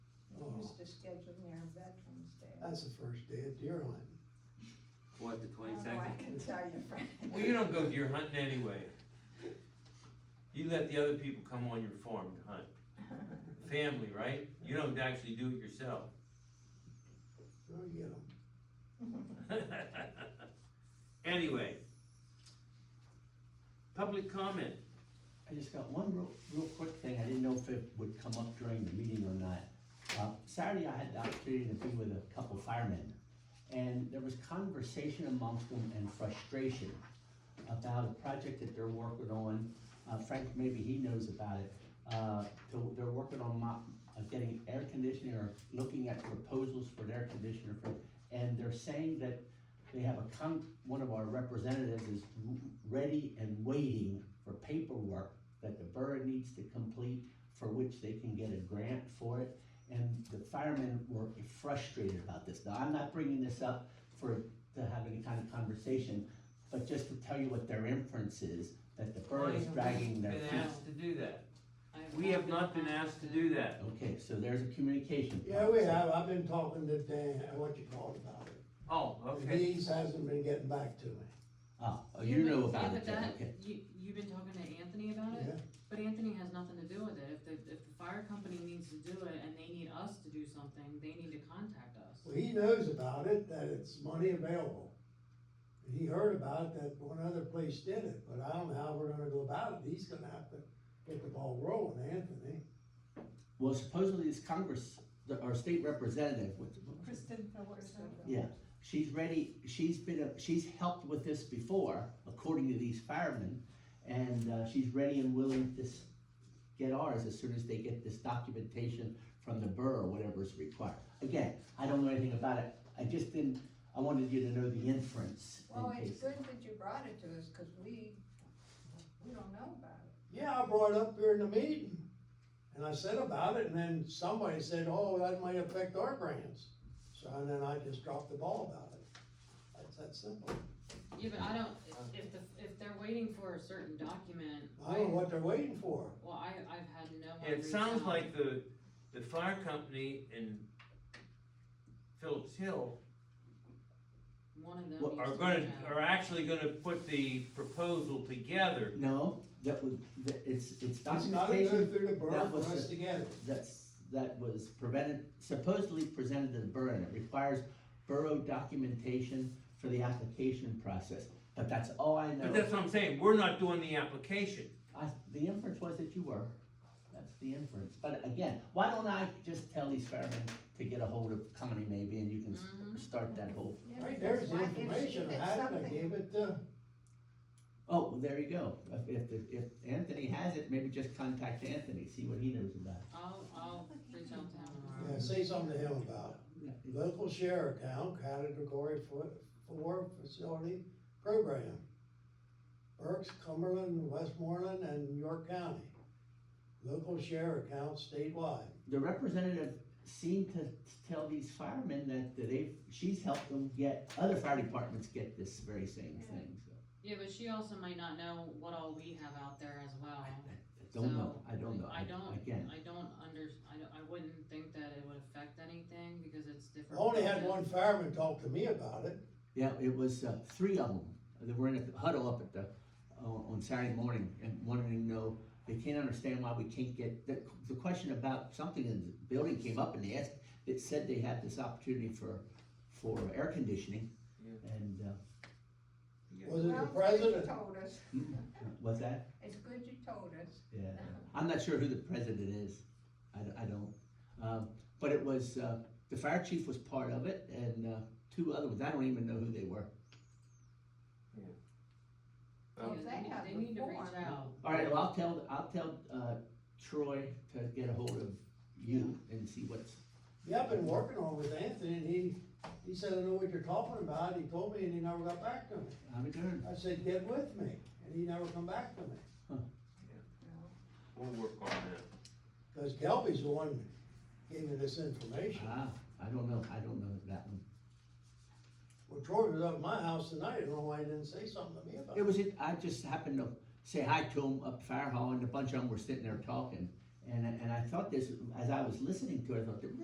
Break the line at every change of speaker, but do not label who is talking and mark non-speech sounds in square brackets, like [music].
scheduling their Veterans Day.
That's the first day of deer hunting.
What, the
I don't know, I
twenty-second?
can tell you, Frank.
Well, you don't go deer hunting anyway. You let the other people come on your farm to hunt. Family, right? You don't actually do it yourself. [laughs]
Oh, you know,
Anyway. Public comment.
I just got one real, real quick thing, I didn't know if it would come up during the meeting or not. Uh, Saturday, I had the opportunity to be with a couple firemen, and there was conversation amongst them and frustration about a project that they're working on, uh, Frank, maybe he knows about it. Uh, so they're working on mo- uh, getting air conditioning or looking at proposals for an air conditioner, for- and they're saying that they have a con, one of our representatives is w- ready and waiting for paperwork that the borough needs to complete, for which they can get a grant for it. And the firemen were frustrated about this. Now, I'm not bringing this up for, to have any kind of conversation, but just to tell you what their inference is, that the borough is dragging their
Been
feet.
asked to do that. We have not been asked to do that.
Okay, so there's a communication.
Yeah, we have, I've been talking to Dan, uh, what you call it, about it.
Oh, okay.
These hasn't been getting back to me.
Ah, oh,
Yeah,
you
but-
know
yeah,
about
but
it, then,
that-
okay.
You, you've been talking to Anthony about
Yeah,
it, but Anthony has nothing to do with it, if the, if the fire company needs to do it and they need us to do something, they need to contact us.
well, he knows about it, that it's money available. And He heard about it, that one other place did it, but I don't know how we're gonna go about it, he's gonna have to get the ball rolling, Anthony.
Well, supposedly this Congress, the- our state representative, what,
Kristen Phillips.
Yeah, she's ready, she's been, a- she's helped with this before, according to these firemen, and, uh, she's ready and willing to s- get ours as soon as they get this documentation from the borough, whatever's required. Again, I don't know anything about it, I just didn't, I wanted you to know the inference
Well,
in
it's
case.
good that you brought it to us, cause we, we don't know about it.
Yeah, I brought it up during the meeting, and I said about it, and then somebody said, oh, that might affect our grants. So, and then I just dropped the ball about it. That's that simple.
Yeah, but I don't, if the, if they're waiting for a certain document,
I don't know what they're waiting for.
well, I, I've had no one
It
reach
sounds
out.
like the, the fire company in Phillips Hill
One of them
Well,
needs
are
to
gonna,
reach out.
are actually gonna put the proposal together.
No, that was, that, it's, it's
It's gotta go
documentation
through the borough
that
for
was
us
the-
to get it.
that's, that was prevented, supposedly presented to the borough, and it requires borough documentation for the application process, but that's all I know.
But that's what I'm saying, we're not doing the application.
I, the inference was that you were. That's the inference. But again, why don't I just tell these firemen to get a hold of Connie maybe and you can s-
Mhm.
start that whole,
Right, there's the
Why, if she-
information,
if
I had it, I
something-
gave it to,
oh, well, there you go. If, if, the- if Anthony has it, maybe just contact Anthony, see what he knows about
I'll, I'll reach out to him
yeah,
tomorrow.
say something to him about it.
it.
Local share account, category four, four facility program. Berks, Cumberland, Westmoreland, and York County. Local share account statewide.
The representative seemed to tell these firemen that that they've, she's helped them get, other fire departments get this very same thing, so.
Yeah, but she also might not know what all we have out there as well.
I I don't know, I don't know.
I don't,
Again,
I don't under, I don't, I wouldn't think that it would affect anything because it's
I
different.
only had one fireman talk to me about it.
Yeah, it was uh, three of them. They were in a huddle up at the uh, on Saturday morning and wanted to know. They can't understand why we can't get the, the question about something in the building came up and they asked. It said they had this opportunity for for air conditioning,
Yeah.
and uh,
Was it
Well,
the
it's good
president? Mm.
You told us,
what's hmm, that?
it's good you told us.
Yeah, I'm not sure who the president is. I, d- I don't. Um, but it was uh, the fire chief was part of it, and uh, two other ones. I don't even know who they were.
Yeah,
Well, they have
They need to reach
reform.
out.
All right, well, I'll tell, I'll tell, uh, Troy to get a hold of you and see what's,
Yeah, I've been working on it with Anthony, and he, he said, I know what you're talking about, he told me, and he never got back to me.
I'm doing.
I said, get with me, and he never come back to me.
We'll work on that.
Because Kelby's the one that gave me this information.
Ah, I don't know, I don't know that one.
Well, Troy was up at my house tonight, I don't know why he didn't say something to me about
It
it.
was, it. I just happened to say hi to him up fire hall and a bunch of them were sitting there talking. And, I- and I thought this, as I was listening to it, I thought,